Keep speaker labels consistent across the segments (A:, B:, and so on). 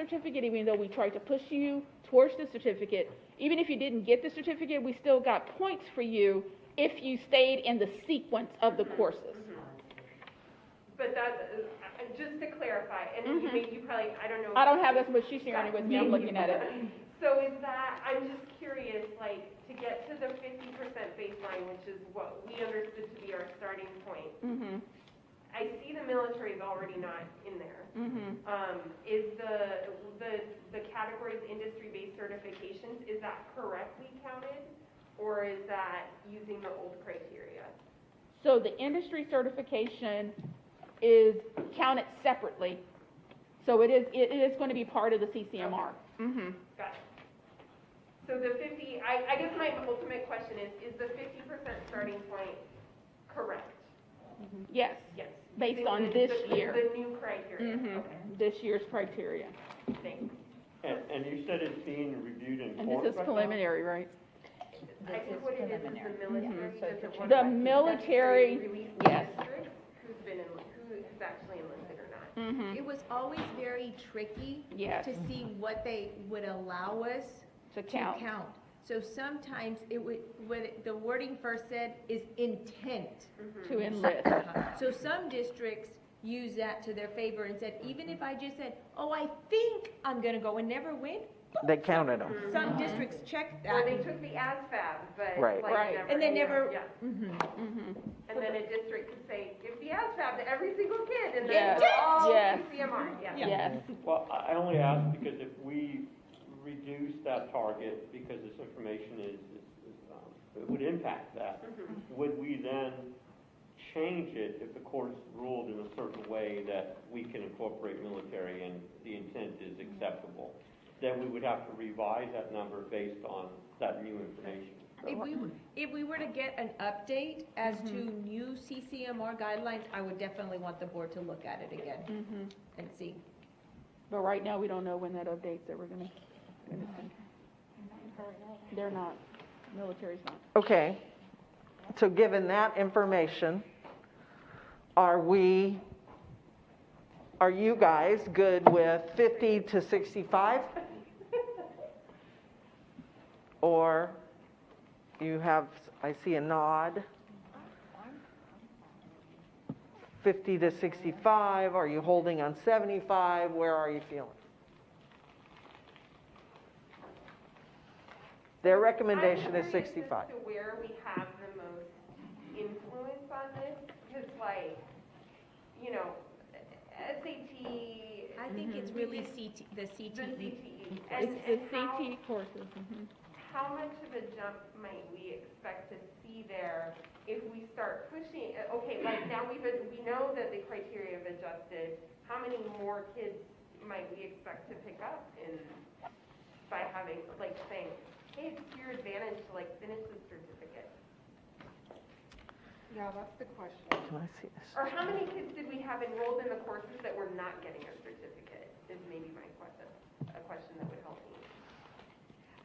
A: certificate, even though we tried to push you towards the certificate, even if you didn't get the certificate, we still got points for you if you stayed in the sequence of the courses.
B: Mm-hmm. But that, uh, just to clarify, and you
A: Mhm.
B: may, you probably, I don't know.
A: I don't have this, but she's sharing it with me, I'm looking at it.
B: So is that, I'm just curious, like, to get to the fifty percent baseline, which is what we understood to be our starting point,
A: Mm-hmm,
B: I see the military is already not in there.
A: mm-hmm.
B: Um, is the, the, the categories industry-based certifications, is that correctly counted? Or is that using the old criteria?
A: So the industry certification is counted separately. So it is, it is going to be part of the CCMR. Mm-hmm.
B: Got it. So the fifty, I, I guess my ultimate question is, is the fifty percent starting point correct?
A: Yes,
B: Yes.
A: Based
B: Using
A: on
B: the-
A: this
B: the-
A: year.
B: The new criteria,
A: Mhm.
B: okay,
A: this year's criteria.
B: thanks.
C: And, and you said it's being reviewed in
A: And
C: court
A: this is
C: right now?
A: preliminary, right?
B: I think what it is, is the military doesn't want.
A: The
B: to
A: military,
B: necessarily release
A: yes.
B: districts Who's been in, who is actually enlisted or not.
A: Mm-hmm,
D: It was always very tricky
A: yes,
B: Mm-hmm.
D: to see what they would allow us
A: to
D: to
A: count.
D: count. So sometimes it would, what, it- the wording first said is intent.
A: to enlist.
D: So some districts use that to their favor and said, even
B: Mm-hmm.
D: if I just said, oh, I think I'm gonna go and never win,
E: They counted them.
D: some districts check
B: Or
D: that.
B: Mm-hmm. they took the ASVAB, but like
E: Right.
A: Right.
B: never.
D: And they
B: yeah,
D: never-
B: Yeah,
D: Mm-hmm.
A: Mhm.
B: and then a district could say, give the ASVAB to every single kid, and then
A: Yes.
B: we're all
A: Yes.
B: CMR, yeah.
A: Yes,
C: Well, I I only ask because if we reduce that target, because this information is, is- is, um, it would impact that,
B: Mhm.
C: would we then change it if the courts ruled in a certain way that we can incorporate military and the intent is acceptable? Then we would have to revise that number based on that new information.
D: If we, were- if we were to get an update as to
B: Mm-hmm.
D: new CCMR guidelines, I would definitely want the board to look at it again
A: mhm.
D: and see.
A: But right now, we don't know when that updates that we're gonna. They're not, military's not.
E: Okay, so given that information, are we, are you guys good with 50 to 65? Or you have, I see a nod. 50 to 65, are you holding on 75? Where are you feeling? Their recommendation is
B: I'm curious as
E: 65.
B: to where we have the most influence on this, because like, you know, SAT.
D: I think it's really E. CT, the
B: The
D: CTE.
B: CTE. And,
A: Mm-hmm. It's the E
B: and how,
A: CT courses, mhm.
B: how much of a jump might we expect to see there if we start pushing, uh, okay, like now we've, ad- we know that the criteria have adjusted, how many more kids might we expect to pick up in, by having, like saying, hey, it's to your advantage to like finish the certificate?
F: Yeah, that's the question.
E: Can I see this?
B: Or how many kids did we have enrolled in the courses that were not getting a certificate, is maybe my question, a question that would help me.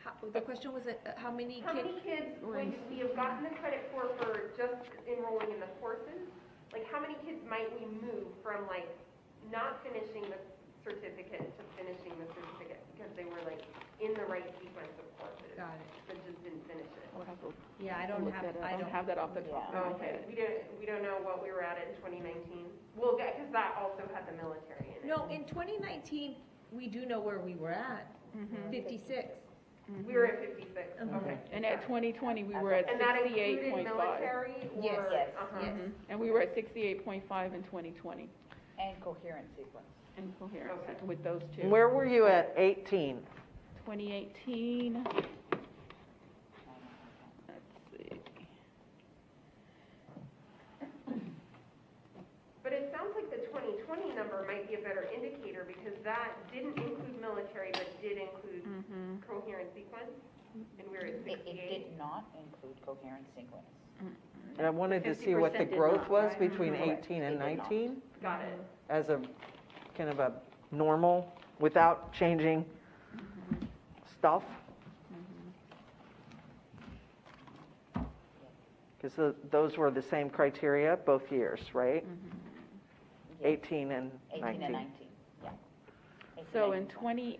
D: How- The question was, uh, how many
B: How
D: kids?
B: many kids would we have gotten the credit for, for just enrolling in the courses? Like, how many kids might we move from like not finishing the certificate to finishing the certificate? Because they were like in the right sequence of courses,
D: Got it.
B: but just didn't finish it.
A: I'll Oh, have to
D: Yeah, I
A: look
D: don't have,
A: that up.
D: I don't.
A: have that off the top of my
B: Oh, Okay,
A: head.
B: we don't, we don't know what we were at in twenty nineteen. Well, that, because that also had the military in it.
D: No, in 2019, we do know where we were at, 56.
B: Mm-hmm. We were at fifty-six,
D: Mhm.
B: okay.
A: Mm-hmm. And at twenty twenty, we were at
B: And that
A: sixty-eight
B: included
A: point five. Mm-hmm.
B: military or?
D: Yes. Yes.
B: Uh-huh.
D: Yes.
A: And we were at sixty-eight point five in twenty twenty,
F: And coherent sequence.
A: in coherence
B: Okay.
A: with those two.
E: Where were you at 18?
A: Twenty eighteen. Let's see.
B: But it sounds like the 2020 number might be a better indicator because that didn't include military, but did include
A: Mhm.
B: coherent sequence, and we're at
F: Mm. It, it
B: 68.
F: did not include coherent sequence.
E: And I wanted to see what the
B: 50% did
E: growth
B: not,
E: was
B: right?
E: between
F: Correct.
E: 18 and
F: It did not.
E: 19
B: Got it.
E: as a, kind of a normal, without changing stuff? Because those were the same criteria both years, right?
F: Yeah.
E: 18 and
F: 18 and
E: 19.
F: 19, yeah. It's
A: So
F: amazing.
A: in twenty